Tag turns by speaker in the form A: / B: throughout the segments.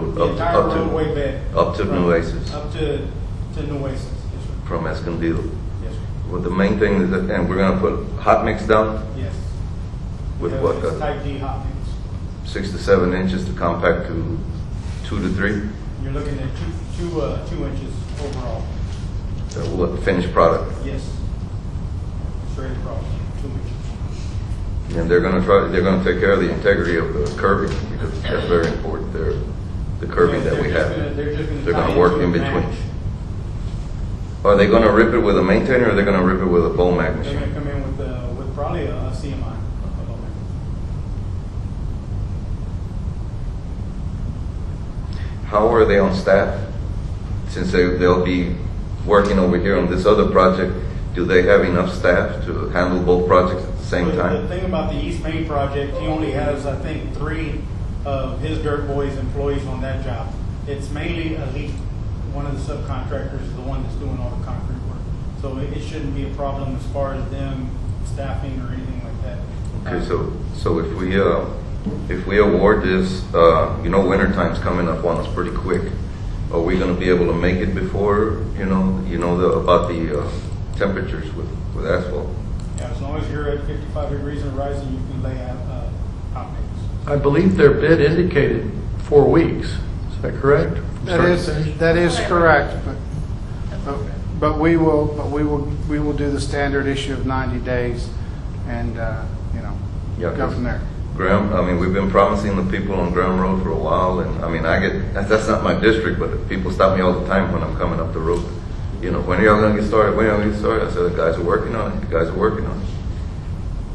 A: road, the
B: Up-
A: entire
B: up to-
A: roadway back.
B: up to
A: From-
B: Nueces.
A: Up to, to Nueces, yes, sir.
B: from Escondido.
A: Yes, sir.
B: Well, the main thing is, that- and we're gonna put hot mix down
A: Yes.
B: with
A: Yes,
B: what,
A: it's
B: uh,
A: Type D hot mix.
B: six to seven inches to compact to two to three?
A: You're looking at two, two, uh, two inches overall.
B: So what, finished product?
A: Yes. Straight across, two inches.
B: And they're gonna try, they're gonna take care of the integrity of the curbing, because that's very important, there, the curbing that we
A: They're just gonna-
B: have.
A: They're just gonna.
B: They're
A: tie
B: gonna work
A: into
B: in
A: a
B: between.
A: match.
B: Are they gonna rip it with a maintainer, or they're gonna rip it with a bowl mag
A: They're
B: machine?
A: gonna come in with, uh, with probably a a CMI. a low
B: Uh-huh.
A: max.
B: How are they on staff? Since they, they'll be working over here on this other project, do they have enough staff to handle both projects at the same
A: But The
B: time?
A: thing about the East Main project, he only has, I think, three of his Dirt Boys employees on that job. It's mainly Elite, one of the subcontractors, is the one that's doing all the concrete work. So it it shouldn't be a problem as far as them staffing or anything like that.
B: Okay, so, so if we, uh, if we award this, uh, you know, winter time's coming up on us pretty quick. Are we gonna be able to make it before, you know, you know, the, about the, uh, temperatures with, with asphalt?
A: Yeah, As long as you're at 55 degrees and rising, you can lay out uh, hot mix.
C: I believe their bid indicated four weeks. Is that correct? From
D: That
C: start to
D: is,
C: finish?
D: that is correct, but, but- but we will, but we will, we will do the standard issue of 90 days and, uh, you know,
B: Yeah,
D: go
B: 'cause-
D: from there.
B: Graham, I mean, we've been promising the people on Graham Road for a while, and, I mean, I get, that's, that's not my district, but people stop me all the time when I'm coming up the road. You know, when are y'all gonna get started, when are y'all gonna get started? I said, the guys are working on it, the guys are working on it.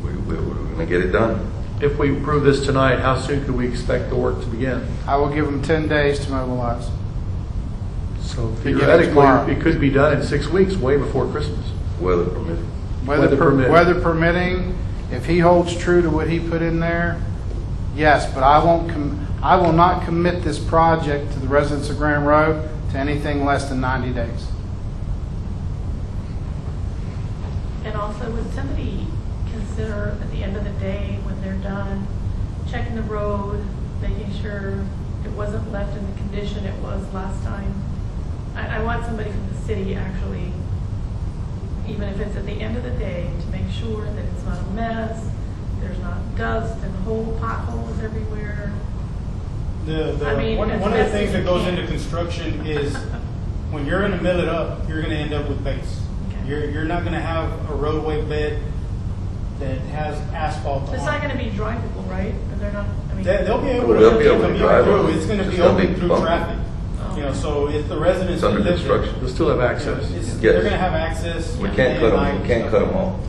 B: We, we, we're gonna get it done.
C: If we approve this tonight, how soon could we expect the work to begin?
D: I will give them 10 days to mobilize.
C: So
D: Begin tomorrow.
C: theoretically, it could be done in six weeks, way before Christmas.
B: Weather permitting.
C: Weather
D: per-
C: permitting.
D: Weather permitting, if he holds true to what he put in there, yes, but I won't, com- I will not commit this project to the residents of Graham Road to anything less than 90 days.
E: And also, would somebody consider at the end of the day, when they're done, checking the road, making sure it wasn't left in the condition it was last time? I, I want somebody from the city actually, even if it's at the end of the day, to make sure that it's not a mess, there's not dust and whole potholes everywhere.
A: The,
E: I
A: the,
E: mean,
A: one,
E: as
A: one of the
E: best
A: things
E: as
A: that
E: you
A: goes
E: can.
A: into construction is, when you're gonna mill it up, you're gonna end up with base.
E: Okay.
A: You're, you're not gonna have a roadway bed that has asphalt
E: It's not
A: on it.
E: gonna be drivable, right? And they're not, I mean.
A: They, they'll be able to.
B: They'll be able to
A: commute
B: drive
A: through.
B: on it.
A: It's gonna
B: It's
A: be
B: gonna be
A: open through
B: bumpy.
A: traffic. You
E: Oh.
A: know, so if the residents.
B: It's under
A: that live there,
B: construction.
C: They'll still have
A: you know,
C: access.
A: it's-
B: Yes.
A: They're gonna have access.
B: We can't cut them, we can't cut them
A: all.
B: all.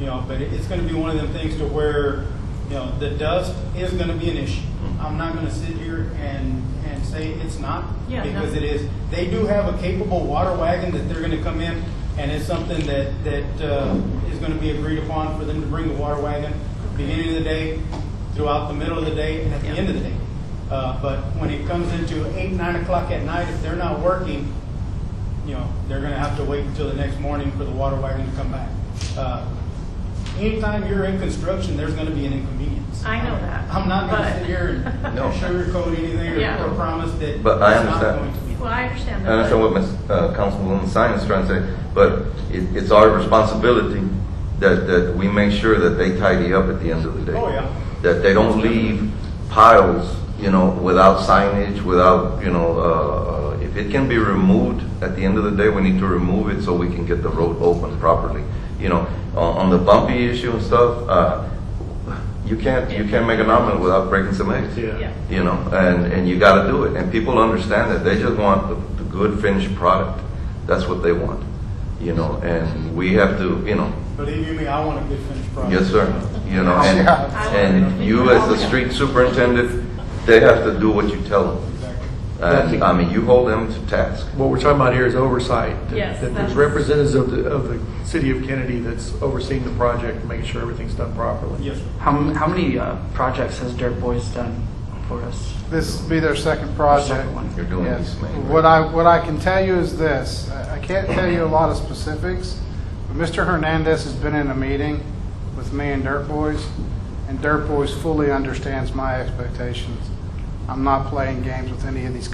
A: You know, but it- it's gonna be one of them things to where, you know, the dust is gonna be an issue.
E: Mm-hmm.
A: I'm not gonna sit here and, and say it's not.
E: Yeah, no.
A: Because it is, they do have a capable water wagon that they're gonna come in, and it's something that, that, uh, is gonna be agreed upon for them to bring the water wagon, beginning of the day, throughout the middle of the day, and at the
E: Yeah.
A: end of the day. Uh, but when it comes into eight, nine o'clock at night, if they're not working, you know, they're gonna have to wait until the next morning for the water wagon to come back. Uh, Anytime you're in construction, there's gonna be an inconvenience.
E: I know that,
A: I'm not gonna
E: but-
A: sit here and
B: No.
A: sugarcoat anything
E: Yeah.
A: or- or promise that.
B: But I
A: it's not
B: understand.
A: going to be.
E: Well, I understand
B: I
E: that.
B: understand
E: but-
B: what Ms., uh, Councilwoman Sines is trying to say, but it, it's our responsibility that, that we make sure that they tidy up at the end of the day.
A: Oh, yeah.
B: That they don't leave piles, you know, without signage, without, you know, uh, uh, if it can be removed, at the end of the day, we need to remove it so we can get the road open properly. You know, on, on the bumpy issue and stuff, uh, you can't, you can't make an omelet without breaking some eggs
E: Yeah.
B: you know, and, and you got to do it. And people understand that they just want the, the good finished product. That's what they want, you know. And we have to, you know,
A: Believe you me, I want a good finished product.
B: yes, sir, you know. And,
D: Yeah.
B: and you as the street superintendent, they have to do what you tell them.
A: Exactly.
B: And I mean, you hold them to task.
C: What we're talking about here is oversight. that-
E: Yes,
C: That
E: that's-
C: there's representatives of the, of the city of Kennedy that's overseeing the project, making sure everything's done properly.
A: Yes, sir.
F: How, m- how many uh, projects has Dirt Boys done for us?
D: This will be their second project.
F: Second one.
B: You're doing
D: Yes.
B: these things.
D: What I, what I can tell you is this, I I can't tell you a lot of specifics, but Mr. Hernandez has been in a meeting with me and Dirt Boys, and Dirt Boys fully understands my expectations. I'm not playing games with any of these